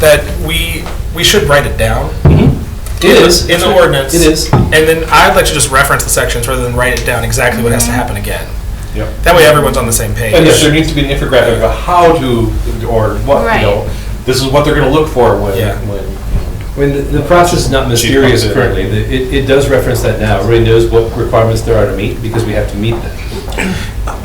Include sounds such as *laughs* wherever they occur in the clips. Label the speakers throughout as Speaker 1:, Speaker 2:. Speaker 1: that we, we should write it down.
Speaker 2: It is.
Speaker 1: In the ordinance.
Speaker 2: It is.
Speaker 1: And then I'd like to just reference the sections rather than write it down exactly what has to happen again.
Speaker 3: Yep.
Speaker 1: That way everyone's on the same page.
Speaker 3: And if there needs to be an infographic of how to, or what, you know, this is what they're gonna look for when,
Speaker 1: Yeah.
Speaker 3: when.
Speaker 2: I mean, the- the process is not mysterious
Speaker 3: Chief.
Speaker 2: currently. The- It, it does reference that now. Everybody knows what requirements there are to meet because we have to meet them.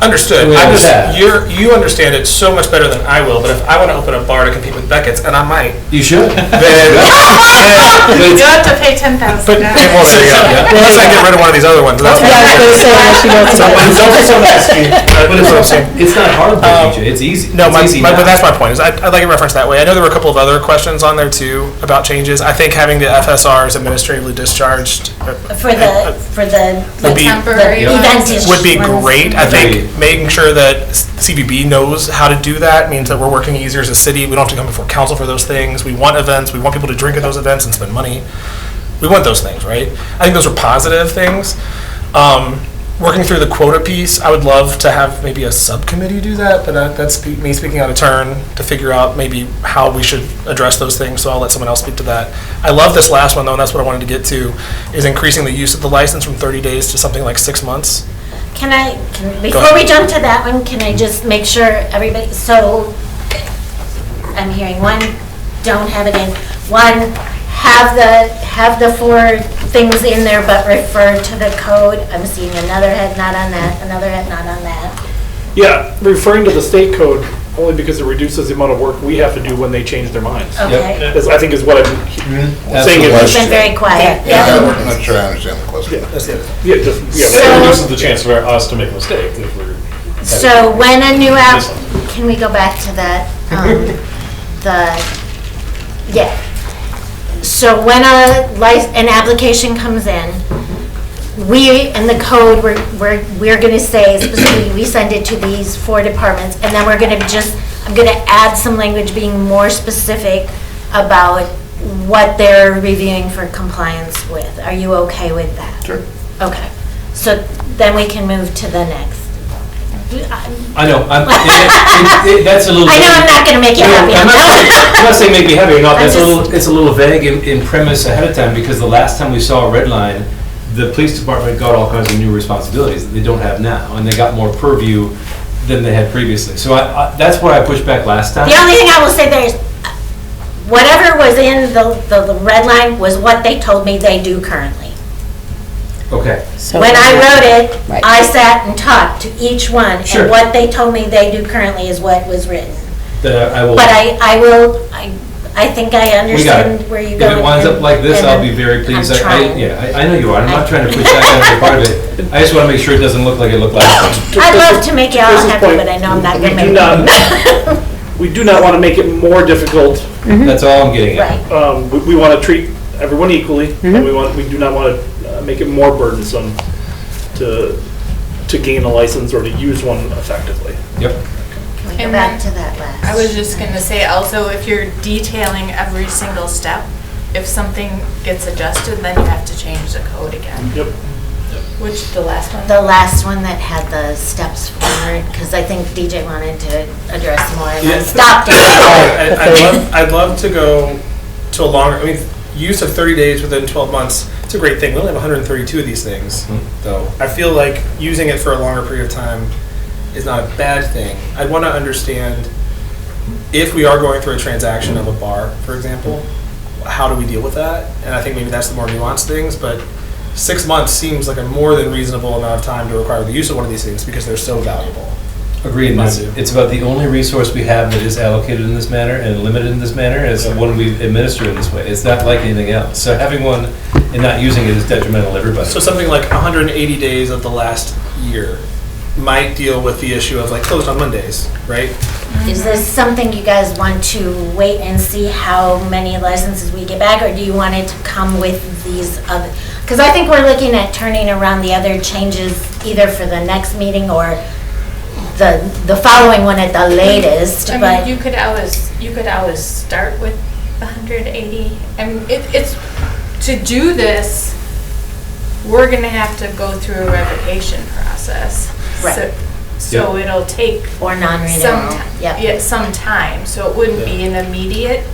Speaker 1: Understood.
Speaker 2: We
Speaker 1: I
Speaker 2: have
Speaker 1: just,
Speaker 2: that.
Speaker 1: you're, you understand it so much better than I will, but if I want to open a bar to compete with Beckett's, and I
Speaker 2: *laughs*
Speaker 1: might,
Speaker 2: You should.
Speaker 1: then, *laughs*
Speaker 4: You have to pay ten
Speaker 1: but it
Speaker 4: thousand dollars.
Speaker 1: won't stay up. Unless I get rid of one of these other ones, that's
Speaker 5: Yeah, I was
Speaker 1: fine.
Speaker 5: gonna say, unless you go to.
Speaker 2: It's also something that's-
Speaker 1: But it's what I'm saying.
Speaker 2: It's not hard
Speaker 1: Um,
Speaker 2: though, DJ. It's easy.
Speaker 1: No,
Speaker 2: It's
Speaker 1: my,
Speaker 2: easy
Speaker 1: my,
Speaker 2: now.
Speaker 1: but that's my point, is I, I'd like it referenced that way. I know there were a couple of other questions on there too about changes. I think having the FSRs administratively discharged uh,
Speaker 6: For the, for the
Speaker 1: Would be-
Speaker 4: Temporary
Speaker 6: the
Speaker 4: ones.
Speaker 6: event-ish
Speaker 1: would be
Speaker 6: ones.
Speaker 1: great. I think
Speaker 2: Agreed.
Speaker 1: making sure that CBB knows how to do that means that we're working easier as a city. We don't have to come before council for those things. We want events, we want people to drink at those events and spend money. We want those things, right? I think those are positive things. Um, Working through the quota piece, I would love to have maybe a subcommittee do that, but uh, that's spe- me speaking out of turn to figure out maybe how we should address those things, so I'll let someone else speak to that. I love this last one though, and that's what I wanted to get to, is increasing the use of the license from 30 days to something like six months.
Speaker 6: Can I, can- before we jump to that one, can I just make sure everybody, so I'm hearing one, don't have it in. One, have the, have the four things in there but refer to the code. I'm seeing another head not on that, another head not on that.
Speaker 7: Yeah, referring to the state code, only because it reduces the amount of work we have to do when they change their minds.
Speaker 6: Oh. Okay.
Speaker 7: Is- I think is what I'm
Speaker 2: That's
Speaker 7: saying
Speaker 2: the
Speaker 7: is-
Speaker 6: It's been very quiet.
Speaker 5: Yeah, I'm not sure I understand the question.
Speaker 7: Yeah, just, yeah.
Speaker 6: So-
Speaker 3: That reduces the chance for us to make mistakes if we're.
Speaker 6: So when a new app, can we go back to that, um, the, yeah. So when a lic, an application comes in, we, and the code, we're, we're, we're gonna say specifically, we send it to these four departments, and then we're gonna just, I'm gonna add some language being more specific about what they're reviewing for compliance with. Are you okay with that? Sure. Okay, so then we can move to the next.
Speaker 2: I know.
Speaker 1: *laughs*
Speaker 2: I'm- it- it- it- That's a little.
Speaker 6: I know I'm not gonna make you happy.
Speaker 2: I'm not saying- I'm not saying make me happy or not,
Speaker 6: *laughs* I'm
Speaker 2: that's a
Speaker 6: just-
Speaker 2: little, it's a little vague in, in premise ahead of time, because the last time we saw a red line, the police department got all kinds of new responsibilities that they don't have now, and they got more purview than they had previously. So I, I- that's why I pushed back last time.
Speaker 6: The only thing I will say there is, uh, whatever was in the, the, the red line was what they told me they do currently.
Speaker 2: Okay,
Speaker 4: *laughs*
Speaker 5: So-
Speaker 6: When I wrote
Speaker 5: Right.
Speaker 6: it, I sat and talked to each one,
Speaker 2: Sure.
Speaker 6: and what they told me they do currently is what was written.
Speaker 2: then I I will.
Speaker 6: But I, I will, I, I think I
Speaker 2: We got it.
Speaker 6: understand where you go.
Speaker 2: If it winds up like this, I'll be very pleased. I- I- Yeah, I, I know you are, I'm not trying to push back on your part of it. I just wanna make sure it doesn't look like it looked last time.
Speaker 6: I'd love to make you all
Speaker 7: Chris's
Speaker 6: happy,
Speaker 7: point,
Speaker 6: but I know I'm not
Speaker 7: we
Speaker 6: gonna make
Speaker 7: do
Speaker 6: you.
Speaker 7: not- We do not want to make it more difficult.
Speaker 6: Mm-hmm.
Speaker 2: That's all I'm getting at.
Speaker 6: Right.
Speaker 7: Um, We, we want to treat everyone equally, and we want, we do not want to make it more burdensome to, to gain a license or to use one effectively.
Speaker 2: Yep.
Speaker 6: Can we go back to that last?
Speaker 4: I was just gonna say also, if you're detailing every single step, if something gets adjusted, then you have to change the code again,
Speaker 7: Yep.
Speaker 4: which the last one.
Speaker 6: The last one that had the steps forward, because I think DJ wanted to address more, and I
Speaker 1: Yeah.
Speaker 6: stopped it.
Speaker 1: I- I'd love, I'd love to go to a longer, I mean, use of 30 days within 12 months, it's a great thing. We only have 132 of these things, though. I feel like using it for a longer period of time is not a bad thing. I'd want to understand if we are going through a transaction of a bar, for example, how do we deal with that? And I think maybe that's the more nuanced things, but six months seems like a more than reasonable amount of time to require the use of one of these things because they're so valuable.
Speaker 2: Agreed, and it's,
Speaker 1: Mind you.
Speaker 2: it's about the only resource we have that is allocated in this manner and limited in this manner, and it's the one we administer in this way. It's not like anything else. So having one and not using it is detrimental to everybody.
Speaker 1: So something like 180 days of the last year might deal with the issue of like closed on Mondays, right?
Speaker 6: Is this something you guys want to wait and see how many licenses we get back, or do you want it to come with these other? Because I think we're looking at turning around the other changes either for the next meeting or the, the following one at the latest,
Speaker 4: I
Speaker 6: but.
Speaker 4: mean, you could always, you could always start with 180. I mean, it, it's, to do this, we're gonna have to go through a revocation process.
Speaker 6: Right.
Speaker 4: So- So it'll take
Speaker 6: Or non-renewal,
Speaker 4: some, ti-
Speaker 6: yep.
Speaker 4: yeah, some time, so it wouldn't be an immediate